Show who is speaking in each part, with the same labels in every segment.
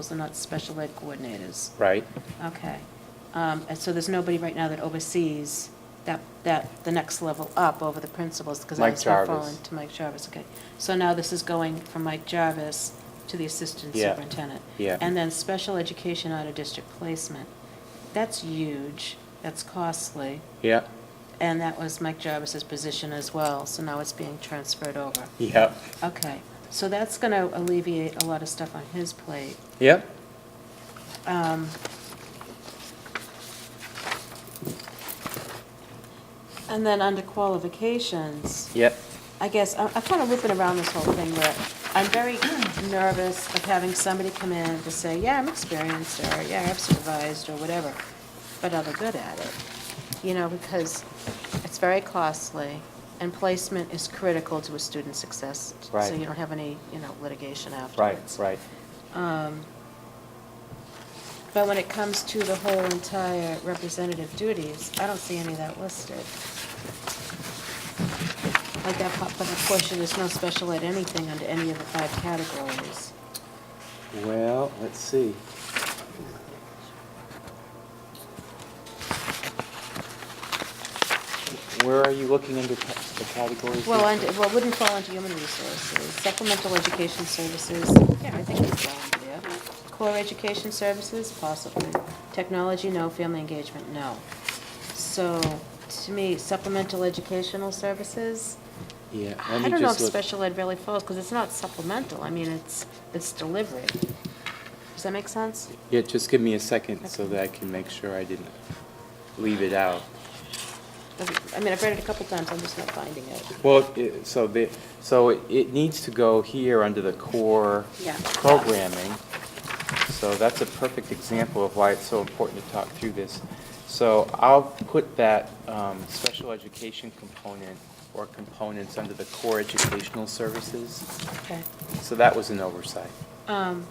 Speaker 1: Those are not special ed coordinators.
Speaker 2: right?
Speaker 1: Okay. Um, And so there's nobody right now that oversees that, that, the next level up over the principals, because I
Speaker 2: Mike
Speaker 1: was not
Speaker 2: Jarvis.
Speaker 1: following to Mike Jarvis, okay. So now this is going from Mike Jarvis to the assistant
Speaker 2: Yeah.
Speaker 1: superintendent.
Speaker 2: Yeah.
Speaker 1: And then special education out of district placement. That's huge, that's costly,
Speaker 2: Yeah,
Speaker 1: and that was Mike Jarvis's position as well, so now it's being transferred over.
Speaker 2: yeah,
Speaker 1: Okay, so that's going to alleviate a lot of stuff on his plate.
Speaker 2: yep,
Speaker 1: Um, And then under qualifications,
Speaker 2: yep,
Speaker 1: I guess, I- I'm kind of whipping around this whole thing where I'm very nervous of having somebody come in to say, yeah, I'm experienced, or yeah, I've supervised, or whatever, but are they good at it? You know, because it's very costly, and placement is critical to a student's success. So
Speaker 2: Right.
Speaker 1: you don't have any, you know, litigation
Speaker 2: right,
Speaker 1: afterwards.
Speaker 2: right.
Speaker 1: Um, But when it comes to the whole entire representative duties, I don't see any of that listed. Like that, po- but of course, there's no special ed anything under any of the five categories.
Speaker 2: Well, let's see. Where are you looking under ca- the categories?
Speaker 1: Well,
Speaker 2: there?
Speaker 1: under, well, it wouldn't fall into human resources, supplemental education services, yeah, I think it's fall under there. Core education services, possibly. Technology, no. Family engagement, no. So, to me, supplemental educational services,
Speaker 2: Yeah, let
Speaker 1: I
Speaker 2: me
Speaker 1: don't know if
Speaker 2: just look.
Speaker 1: special ed really falls, because it's not supplemental, I mean, it's, it's delivery. Does that make sense?
Speaker 2: Yeah, just give me a second so
Speaker 1: Okay.
Speaker 2: that I can make sure I didn't leave it out.
Speaker 1: I mean, I've read it a couple times, I'm just not finding it.
Speaker 2: Well, it- so the, so it- it needs to go here under the core
Speaker 1: Yeah.
Speaker 2: programming. So that's a perfect example of why it's so important to talk through this. So I'll put that um, special education component or components under the core educational services.
Speaker 1: Okay.
Speaker 2: So that was an oversight.
Speaker 1: Um,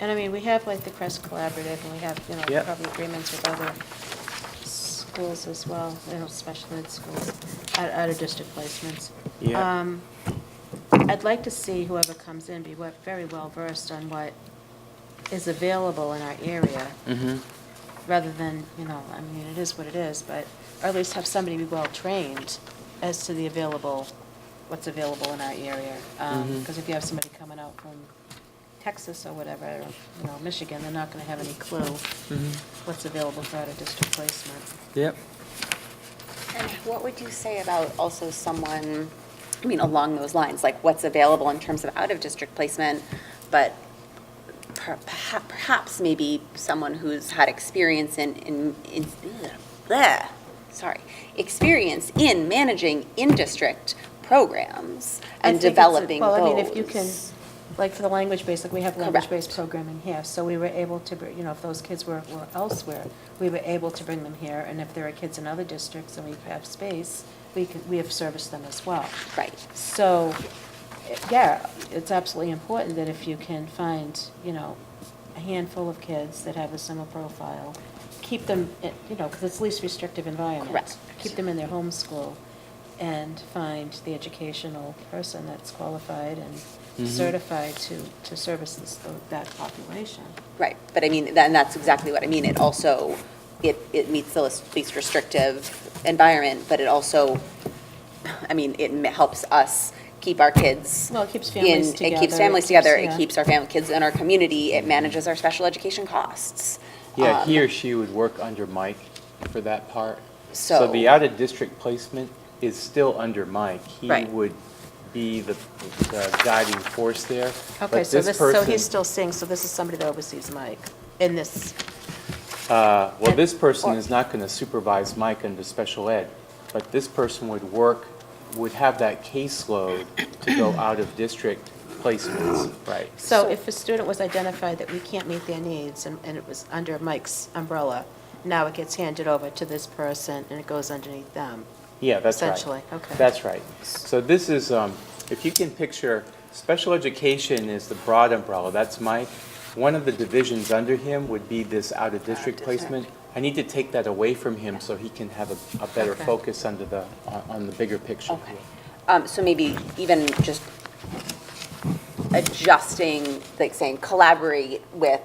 Speaker 1: And I mean, we have like the Crest Collaborative, and we have, you know,
Speaker 2: Yep.
Speaker 1: probably agreements with other schools as well, you know, special ed schools, out- out-of-district placements.
Speaker 2: Yeah.
Speaker 1: Um, I'd like to see whoever comes in be wa- very well-versed on what is available in our area,
Speaker 2: Mm-hmm.
Speaker 1: rather than, you know, I mean, it is what it is, but, or at least have somebody be well-trained as to the available, what's available in our area.
Speaker 2: Mhm.
Speaker 1: Because if you have somebody coming out from Texas or whatever, or, you know, Michigan, they're not going to have any clue what's available for out-of-district placement.
Speaker 2: Yep.
Speaker 3: And what would you say about also someone, I mean, along those lines, like what's available in terms of out-of-district placement, but per- perha- perhaps maybe someone who's had experience in, in, in, bleh, sorry, experience in managing in-district programs
Speaker 1: I think
Speaker 3: and
Speaker 1: it's a-
Speaker 3: developing those?
Speaker 1: Well, I mean, if you can, like, for the language basic, we have language-based
Speaker 3: Correct.
Speaker 1: programming here, so we were able to, br- you know, if those kids were, were elsewhere, we were able to bring them here, and if there are kids in other districts and we have space, we could, we have serviced them as well.
Speaker 3: Right.
Speaker 1: So, eh, yeah, it's absolutely important that if you can find, you know, a handful of kids that have a similar profile, keep them, eh, you know, because it's least restrictive environment.
Speaker 3: Correct.
Speaker 1: Keep them in their home school and find the educational person that's qualified and
Speaker 2: Mhm.
Speaker 1: certified to, to service this, that population.
Speaker 3: Right, but I mean, tha- and that's exactly what I mean. It also, it, it meets the least least restrictive environment, but it also, I mean, it m- helps us keep our kids.
Speaker 1: Well, it keeps families
Speaker 3: in- It
Speaker 1: together,
Speaker 3: keeps
Speaker 1: it
Speaker 3: families
Speaker 1: keeps-
Speaker 3: together, it
Speaker 1: yeah.
Speaker 3: keeps our family, kids in our community, it manages our special education costs.
Speaker 2: Yeah,
Speaker 1: Uh,
Speaker 3: Um,
Speaker 2: he or she would work under Mike for that part.
Speaker 3: So-
Speaker 2: the out-of-district placement is still under Mike. He
Speaker 3: Right.
Speaker 2: would be the the guiding force there.
Speaker 1: Okay,
Speaker 2: But
Speaker 1: so this, so
Speaker 2: person-
Speaker 1: he's still seeing, so this is somebody that oversees Mike in this,
Speaker 2: uh, Well, this person
Speaker 1: or-
Speaker 2: is not going to supervise Mike under special ed, but this person would work, would have that caseload to go out-of-district placements. Right.
Speaker 1: So if a student was identified that we can't meet their needs, and, and it was under Mike's umbrella, now it gets handed over to this person, and it goes underneath them.
Speaker 2: Yeah, that's right.
Speaker 1: Essentially, okay.
Speaker 2: That's right. So this is, um, if you can picture, special education is the broad umbrella, that's Mike. One of the divisions under him would be this out-of-district placement. I need to take that away from him so he can have a, a better
Speaker 1: Okay.
Speaker 2: focus under the, on- on the bigger picture.
Speaker 3: Okay. Um, so maybe even just adjusting, like saying collaborate with